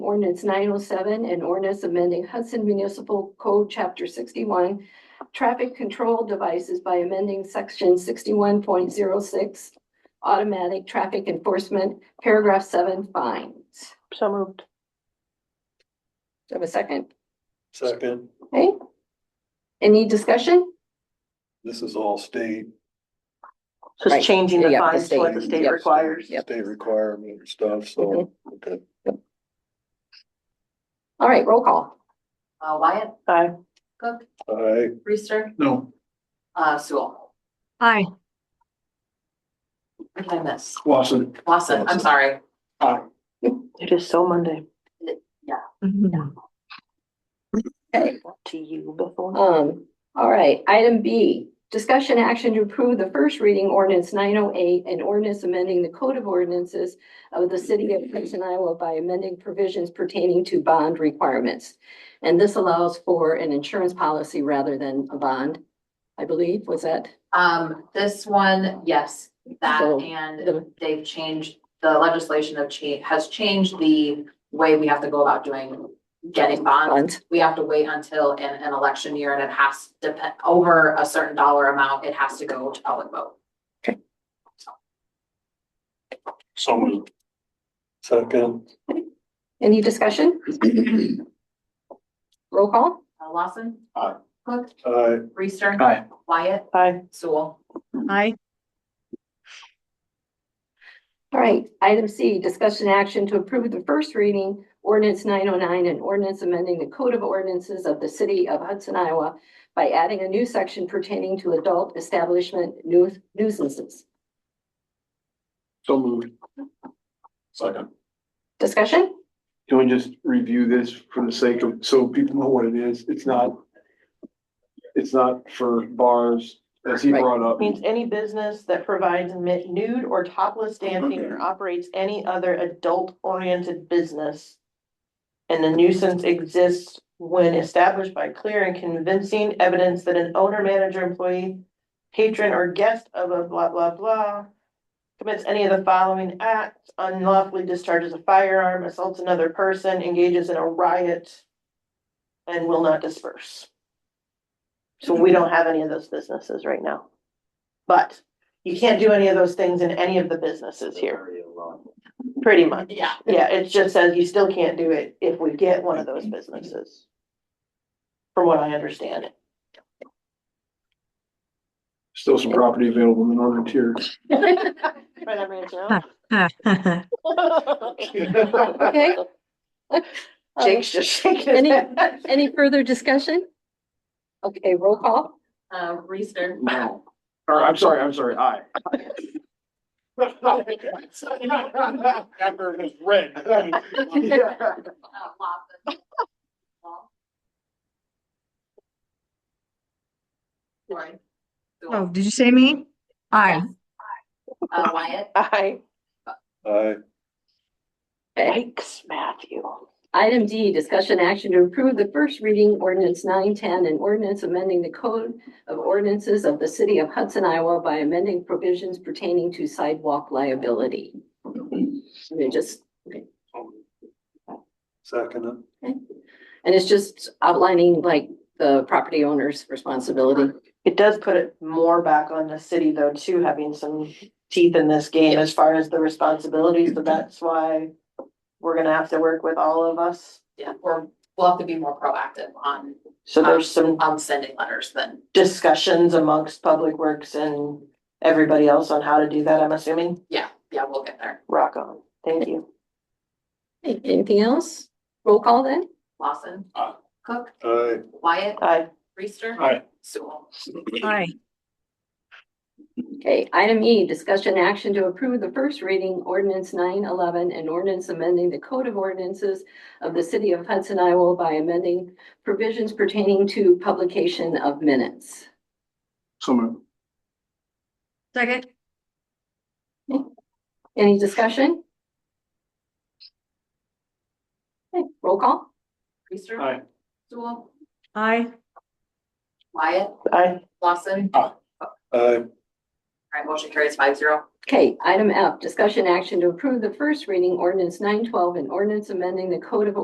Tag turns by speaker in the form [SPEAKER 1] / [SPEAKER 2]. [SPEAKER 1] ordinance nine oh seven and ordinance amending Hudson Municipal Code, chapter sixty-one, traffic control devices by amending section sixty-one point zero six, automatic traffic enforcement, paragraph seven fines.
[SPEAKER 2] So moved.
[SPEAKER 1] Do I have a second?
[SPEAKER 3] Second,
[SPEAKER 1] Okay. Any discussion?
[SPEAKER 3] this is all state,
[SPEAKER 2] So
[SPEAKER 1] Right.
[SPEAKER 2] it's changing the
[SPEAKER 1] Yeah, the
[SPEAKER 2] fines to what the
[SPEAKER 3] state.
[SPEAKER 2] state
[SPEAKER 3] Yep.
[SPEAKER 2] requires. Mm-hmm.
[SPEAKER 1] Yep.
[SPEAKER 3] state requirement stuff, so, okay.
[SPEAKER 1] All right, roll call.
[SPEAKER 4] Uh, Wyatt,
[SPEAKER 2] Aye.
[SPEAKER 4] Cook,
[SPEAKER 3] I,
[SPEAKER 4] Reister,
[SPEAKER 3] no,
[SPEAKER 4] uh, Sewell.
[SPEAKER 2] Aye.
[SPEAKER 4] What did I miss?
[SPEAKER 3] Lawson.
[SPEAKER 4] Lawson, I'm
[SPEAKER 3] Lawson.
[SPEAKER 4] sorry.
[SPEAKER 3] Aye.
[SPEAKER 2] It is so Monday. Mm-hmm.
[SPEAKER 4] Yeah.
[SPEAKER 1] Okay.
[SPEAKER 2] To you before.
[SPEAKER 1] Um, all right, item B, discussion action to approve the first reading ordinance nine oh eight and ordinance amending the code of ordinances of the city of Clinton, Iowa by amending provisions pertaining to bond requirements. And this allows for an insurance policy rather than a bond, I believe, was that?
[SPEAKER 4] Um, this one, yes, that
[SPEAKER 1] So,
[SPEAKER 4] and
[SPEAKER 1] the-
[SPEAKER 4] they've changed, the legislation of change, has changed the way we have to go about doing, getting bonds.
[SPEAKER 1] Bond.
[SPEAKER 4] We have to wait until in an election year and it has to, depend over a certain dollar amount, it has to go to public vote.
[SPEAKER 3] So moved. Second,
[SPEAKER 1] Any discussion? Roll call?
[SPEAKER 4] Uh, Lawson.
[SPEAKER 3] Aye.
[SPEAKER 4] Cook,
[SPEAKER 3] I,
[SPEAKER 4] Reister.
[SPEAKER 3] Aye.
[SPEAKER 4] Wyatt,
[SPEAKER 2] Aye.
[SPEAKER 4] Sewell.
[SPEAKER 2] Aye.
[SPEAKER 1] All right, item C, discussion action to approve the first reading ordinance nine oh nine and ordinance amending the code of ordinances of the city of Hudson, Iowa by adding a new section pertaining to adult establishment nu- nuisances.
[SPEAKER 5] So moved. Second.
[SPEAKER 1] Discussion?
[SPEAKER 5] Can we just review this for the sake of, so people know what it is? It's not, it's not for bars, as he
[SPEAKER 1] Right.
[SPEAKER 5] brought up.
[SPEAKER 2] Means any business that provides mi- nude or topless dancing or operates any other adult-oriented business. And the nuisance exists when established by clear and convincing evidence that an owner, manager, employee, patron, or guest of a blah, blah, blah commits any of the following acts, unlawfully discharges a firearm, assaults another person, engages in a riot, and will not disperse. So we don't have any of those businesses right now. But you can't do any of those things in any of the businesses here, pretty much.
[SPEAKER 4] Yeah.
[SPEAKER 2] Yeah, it just says you still can't do it if we get one of those businesses. From what I understand.
[SPEAKER 5] Still some property available in order tier.
[SPEAKER 2] Right, I'm ready
[SPEAKER 1] Okay.
[SPEAKER 2] Jake's just shaking
[SPEAKER 1] Any-
[SPEAKER 2] his head.
[SPEAKER 1] Any further discussion? Okay, roll call?
[SPEAKER 4] Uh, Reister.
[SPEAKER 5] No. Or, I'm sorry, I'm sorry, aye. Amber is red.
[SPEAKER 4] Uh, Lawson. Wall. Sorry.
[SPEAKER 6] Oh, did you say me? Aye.
[SPEAKER 4] Uh, Wyatt,
[SPEAKER 2] Aye.
[SPEAKER 3] I,
[SPEAKER 1] Okay.
[SPEAKER 2] Yikes, Matthew.
[SPEAKER 1] Item D, discussion action to approve the first reading ordinance nine ten and ordinance amending the code of ordinances of the city of Hudson, Iowa by amending provisions pertaining to sidewalk liability. I mean, just
[SPEAKER 3] second,
[SPEAKER 1] And it's just outlining like the property owner's responsibility.
[SPEAKER 2] It does put it more back on the city though, too, having some teeth in this game as far as the responsibilities, but that's why we're gonna have to work with all of us.
[SPEAKER 4] yeah, we're, we'll have to be more proactive on,
[SPEAKER 2] So there's some
[SPEAKER 4] on sending letters than,
[SPEAKER 2] discussions amongst Public Works and everybody else on how to do that, I'm assuming.
[SPEAKER 4] yeah, yeah, we'll get there.
[SPEAKER 2] Rock on. Thank you.
[SPEAKER 1] Anything else? Roll call then?
[SPEAKER 4] Lawson.
[SPEAKER 3] Aye.
[SPEAKER 4] Cook,
[SPEAKER 3] I,
[SPEAKER 4] Wyatt,
[SPEAKER 2] Aye.
[SPEAKER 4] Reister.
[SPEAKER 3] Aye.
[SPEAKER 4] Sewell.
[SPEAKER 6] Aye.
[SPEAKER 1] Okay, item E, discussion action to approve the first reading ordinance nine eleven and ordinance amending the code of ordinances of the city of Hudson, Iowa by amending provisions pertaining to publication of minutes.
[SPEAKER 5] So moved.
[SPEAKER 6] Second?
[SPEAKER 1] Any discussion? Okay, roll call?
[SPEAKER 4] Reister.
[SPEAKER 5] Aye.
[SPEAKER 4] Sewell.
[SPEAKER 6] Aye.
[SPEAKER 4] Wyatt,
[SPEAKER 2] Aye.
[SPEAKER 4] Lawson.
[SPEAKER 5] Aye.
[SPEAKER 3] I,
[SPEAKER 4] All right, motion carries five zero.
[SPEAKER 1] Okay, item F, discussion action to approve the first reading ordinance nine twelve and ordinance amending the code of